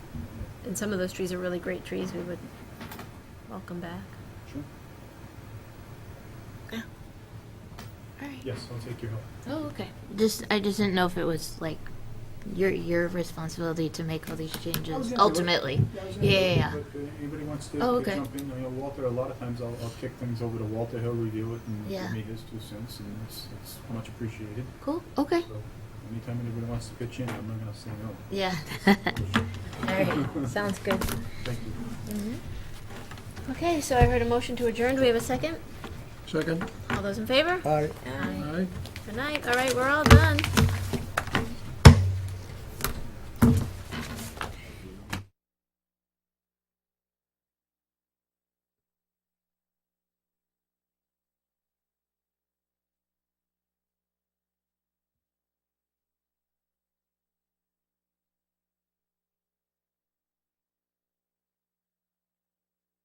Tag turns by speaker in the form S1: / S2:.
S1: and some of those trees are really great trees, we would welcome back.
S2: Sure.
S1: Yeah. All right.
S2: Yes, I'll take your help.
S1: Oh, okay.
S3: Just, I just didn't know if it was like your your responsibility to make all these
S2: I was
S3: changes
S2: gonna say, what-
S3: ultimately.
S2: I was gonna
S3: Yeah,
S2: say,
S3: yeah, yeah.
S2: what, uh, Anybody wants to
S3: Oh,
S2: to
S3: okay.
S2: jump in, you know, Walter, a lot of times I'll, I'll kick things over to Walter, he'll review it and
S3: Yeah.
S2: give me his two cents, and it's, it's much appreciated.
S3: Cool. Okay.
S2: So anytime anybody wants to pitch in, I'm not gonna say no.
S3: Yeah.
S1: All right, sounds good.
S2: Thank you.
S1: Okay, so I heard a motion to adjourn. Do we have a second?
S4: Second?
S1: All those in favor?
S4: Aye.
S1: Aye.
S4: Aye.
S1: Good night. All right, we're all done.